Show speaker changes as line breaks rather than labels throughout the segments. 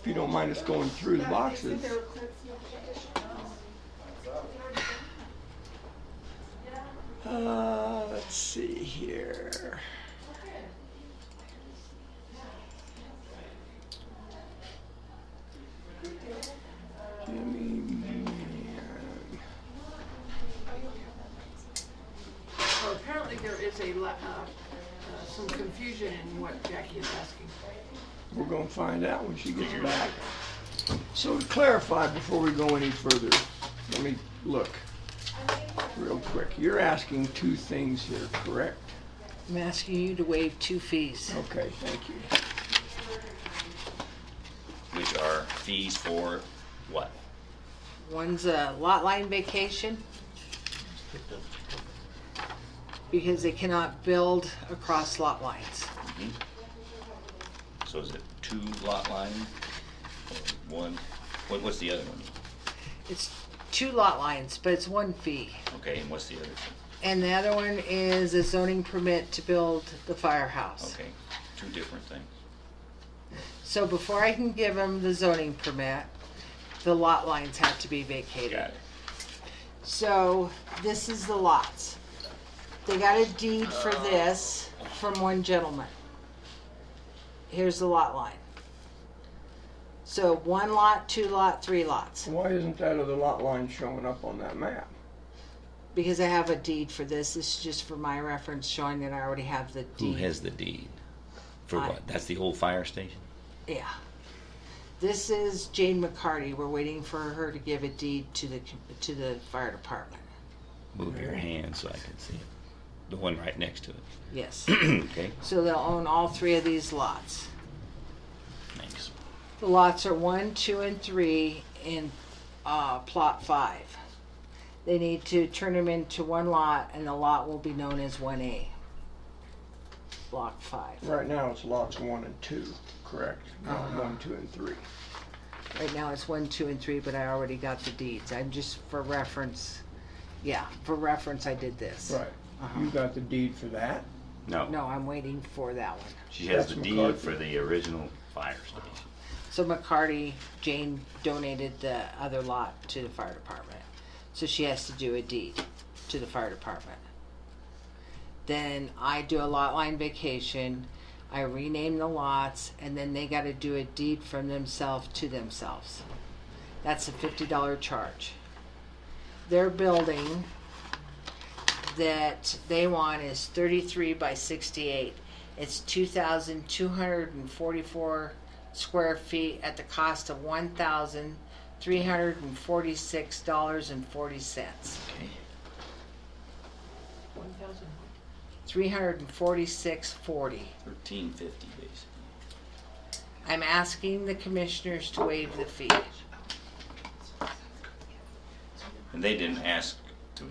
if you don't mind us going through the boxes. Uh, let's see here. Jimmy Man.
So apparently there is a, la- uh, uh, some confusion in what Jackie is asking.
We're gonna find out when she gets back. So to clarify, before we go any further, let me look real quick. You're asking two things here, correct?
I'm asking you to waive two fees.
Okay, thank you.
which are fees for what?
One's a lot line vacation. Because they cannot build across lot lines.
So is it two lot line? Or One, what, what's the other one?
It's two lot lines, but it's one fee.
Okay, and what's the other two?
And the other one is a zoning permit to build the firehouse.
Okay, two different things.
So before I can give them the zoning permit, the lot lines have to be vacated.
Got it.
So this is the lots. They got a deed for
Uh.
this from one gentleman. Here's the lot line. So one lot, two lot, three lots,
Why isn't that other lot line showing up on that map?
because I have a deed for this. This is just for my reference showing that I already have the
Who
deed.
has the deed? For
I-
what? That's the old fire station?
Yeah. This is Jane McCarty. We're waiting for her to give a deed to the, to the fire department.
Move your hand so I can see it. The one right next to it.
Yes.
Okay,
So they'll own all three of these lots.
thanks.
The lots are one, two, and three in uh, plot five. They need to turn them into one lot, and the lot will be known as one A. Block five.
Right now, it's lots one and two, correct? Not one, two, and three.
Right now, it's one, two, and three, but I already got the deeds. I'm just for reference. Yeah, for reference, I did this.
Right. You got the deed for that?
No, I'm waiting for that one.
She has the
That's
deed
McCarthy.
for the original fire station.
So McCarty, Jane donated the other lot to the fire department. So she has to do a deed to the fire department. Then I do a lot line vacation. I rename the lots and then they gotta do a deed from themselves to themselves. That's a fifty dollar charge. Their building that they want is thirty-three by sixty-eight. It's two thousand two hundred and forty-four square feet at the cost of one thousand three hundred and forty-six dollars and forty cents.
Okay.
One thousand.
Three hundred and forty-six forty.
Thirteen fifty, basically.
I'm asking the commissioners to waive the fee.
And they didn't ask to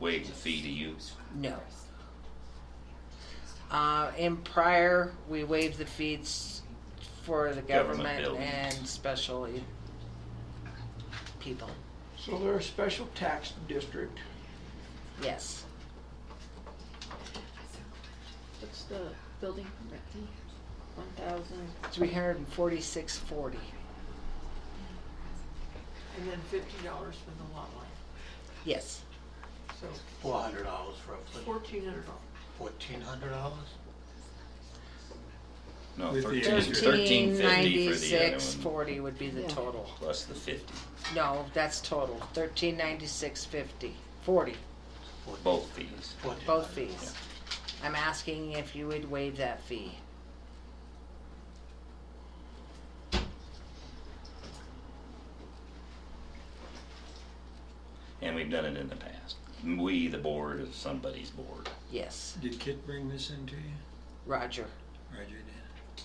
waive the fee to you?
No. Uh, in prior, we waived the fees for the
Government
government
buildings.
and special e- people,
So they're a special tax district.
yes.
What's the building permit fee? One thousand,
Three hundred and forty-six forty.
And then fifty dollars for the lot line,
Yes,
so
Four hundred dollars roughly,
fourteen hundred dollars.
fourteen hundred dollars?
No,
With the-
thirteen,
thirteen
thirteen fifty for the other
ninety-six
one,
forty would be the
Yeah.
total.
plus the fifty,
No, that's total, thirteen ninety-six fifty, forty,
both fees.
both fees. I'm asking if you would waive that fee.
And we've done it in the past. We, the board, is somebody's board.
Yes,
Did Kit bring this in to you?
Roger.
Roger did.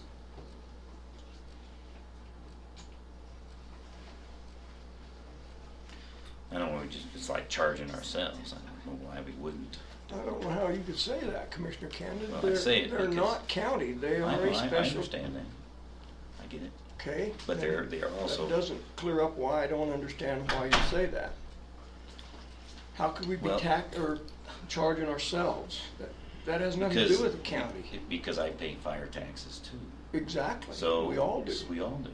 I don't know, we just, it's like charging ourselves. I don't know why we wouldn't.
I don't know how you could say that, Commissioner Camden.
Well, I
They're-
say it
They're
because-
not county, they
I,
are a
I, I
special,
understand that. I get it.
okay?
But they're, they are
That
also,
doesn't clear up why I don't understand why you say that. How could we be
Well-
tax, or charging ourselves? That- That has nothing to
Because-
do with the county.
because I pay fire taxes too.
Exactly.
So.
We all do.
We all do.